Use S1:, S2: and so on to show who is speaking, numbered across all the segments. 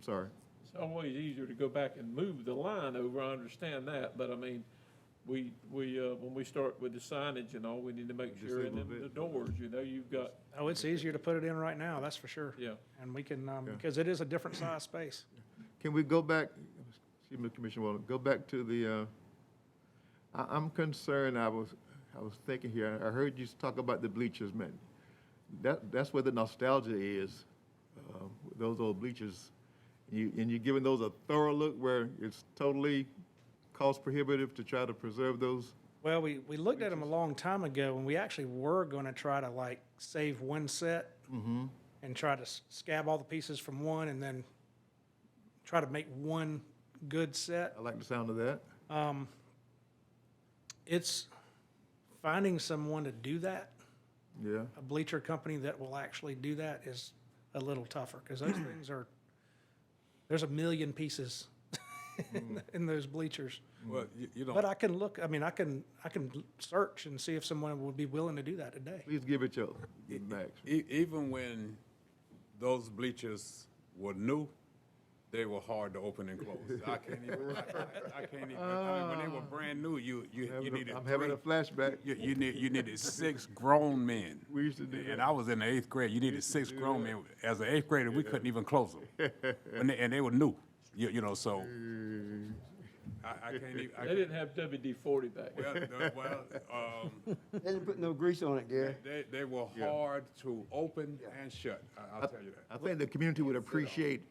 S1: sorry.
S2: It's always easier to go back and move the line over, I understand that, but I mean, we, we, uh, when we start with the signage and all, we need to make
S1: Just a
S2: sure, and
S1: little
S2: then the
S1: bit.
S2: doors, you know, you've got,
S3: Oh, it's easier to put it in right now, that's for sure.
S2: yeah.
S3: And we can, um,
S1: Yeah.
S3: because it is a different size space.
S1: Can we go back, excuse me, Commissioner Walden, go back to the, uh, I, I'm concerned, I was, I was thinking here, I heard you talk about the bleachers, man. That, that's where the nostalgia is, uh, those old bleachers. You, and you're giving those a thorough look where it's totally cost prohibitive to try to preserve those.
S3: Well, we, we looked at them a long time ago, and we actually were gonna try to like save one set and try to s- scab all the pieces from one and then try to make one good set. Um,
S1: I like the sound of that.
S3: It's finding someone to do that,
S1: Yeah,
S3: a bleacher company that will actually do that is a little tougher, because
S1: Mm.
S3: those things are, there's a million pieces
S1: Mm.
S3: in- in those bleachers.
S4: Well, you, you
S3: But
S4: don't,
S3: I can look, I mean, I can, I can search and see if someone would be willing to do that today.
S1: please give it your max.
S4: e- even when those bleachers were new, they were hard to open and close. I can't even, I- I can't even, I mean, when they were brand new, you, you, you needed
S1: Ah. I'm having a
S4: three.
S1: flashback.
S4: You, you need, you needed six grown men.
S1: We used to do that.
S4: And I was in the eighth grade, you needed six grown men. As an eighth grader, we couldn't even close them. And they, and they were new, you, you know, so.
S1: Mm.
S4: I, I can't even, I,
S2: They didn't have WD forty back then.
S4: well, the- well, um,
S5: They didn't put no grease on it, Gary.
S4: they, they were hard to open and shut, I, I'll tell you that.
S1: I think the community would appreciate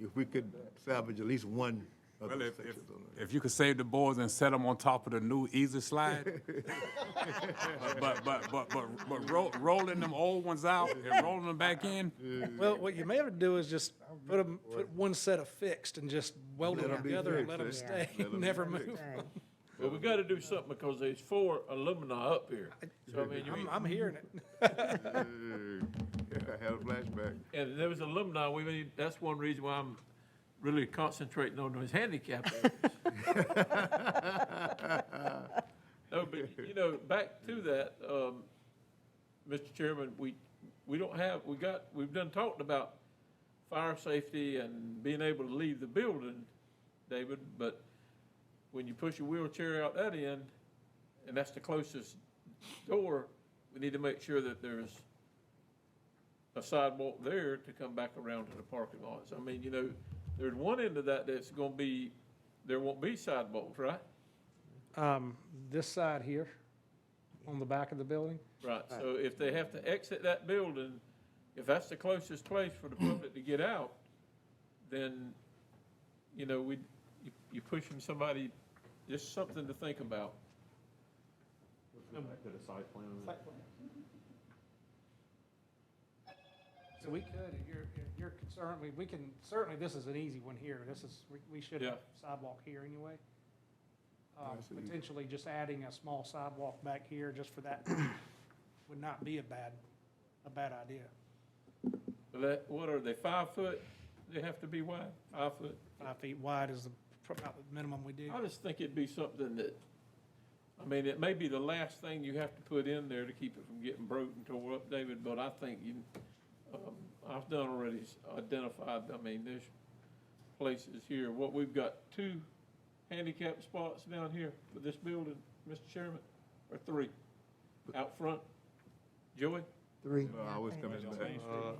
S1: if we could salvage at least one of
S4: Well,
S1: those
S4: if, if,
S1: sections on there.
S4: if you could save the boards and set them on top of the new easy slide. But, but, but, but, but roll, rolling them old ones out and rolling them back in,
S3: Well, what you may have to do is just put 'em- put one set of fixed and just weld
S1: Let
S3: them
S1: 'em be
S3: together and let
S1: fixed,
S3: them
S1: eh?
S3: stay,
S1: Let 'em be
S3: never
S1: fixed.
S3: move.
S6: Right.
S2: But we gotta do something because there's four alumni up here. So I mean, you
S3: I'm,
S1: Mm-hmm.
S3: I'm hearing it.
S1: Yeah, I had a flashback.
S2: And there was alumni, we, made- that's one reason why I'm really concentrating on those handicap areas. No, but, you know, back to that, um, Mr. Chairman, we, we don't have, we got, we've done talked about fire safety and being able to leave the building, David, but when you push a wheelchair out that end, and that's the closest door, we need to make sure that there's a sidewalk there to come back around to the parking lots. I mean, you know, there's one end of that that's gonna be, there won't be sidewalks, right?
S3: Um, this side here, on the back of the building,
S2: Right, so if they have to exit that building, if that's the closest place for the public to get out, then, you know, we, you- you pushing somebody, just something to think about.
S3: so we could, if you're, if you're concerned, we, we can, certainly, this is an easy one here, this is, we, we should
S2: Yeah.
S3: have sidewalk here anyway. Um,
S1: Nice and easy.
S3: potentially just adding a small sidewalk back here just for that would not be a bad, a bad idea.
S2: But that, what are they, five foot? They have to be wide, five foot?
S3: Five feet wide is the, pro- about the minimum we do.
S2: I just think it'd be something that, I mean, it may be the last thing you have to put in there to keep it from getting broken and tore up, David, but I think you, um, I've done already s- identified, I mean, there's places here, what, we've got two handicap spots down here for this building, Mr. Chairman, or three? Out front? Joey?
S5: Three.
S1: No, I was coming back.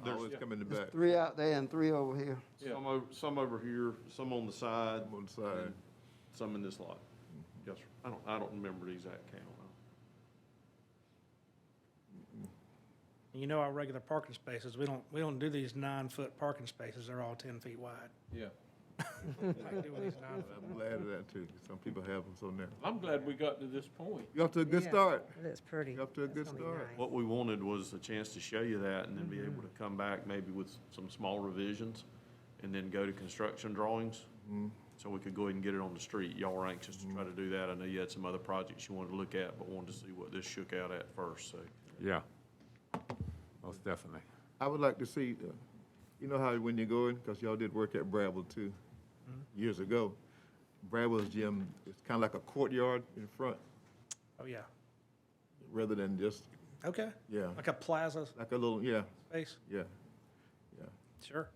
S1: I was coming
S5: There's
S1: back.
S5: three out there and three over here.
S2: Yeah.
S7: Some over, some over here, some on the side,
S1: I'm on the side.
S7: some in this lot. Yes, sir. I don't, I don't remember the exact count.
S3: You know our regular parking spaces, we don't, we don't do these nine-foot parking spaces, they're all ten feet wide.
S2: Yeah.
S3: Like doing these nine foot-
S1: I'm glad of that too. Some people have them so now.
S2: I'm glad we got to this point.
S1: You off to a good
S6: Yeah.
S1: start.
S6: That's pretty.
S1: You're up to a
S6: That's
S1: good
S6: gonna be
S1: start.
S6: nice.
S7: What we wanted was a chance to show you that and then be able to come back maybe with some small revisions and then go to construction drawings. So we could go ahead and get it on the street. Y'all were anxious to try to do that. I know you had some other projects you wanted to look at, but wanted to see what this shook out at first, so.
S4: yeah, most definitely.
S1: I would like to see, uh, you know how when you're going, because y'all did work at Brabble too, years ago. Brabble's gym is kind of like a courtyard in front,
S3: Oh, yeah,
S1: rather than just,
S3: okay,
S1: yeah,
S3: like a plaza
S1: like a little, yeah,
S3: space,
S1: yeah, yeah.
S3: sure.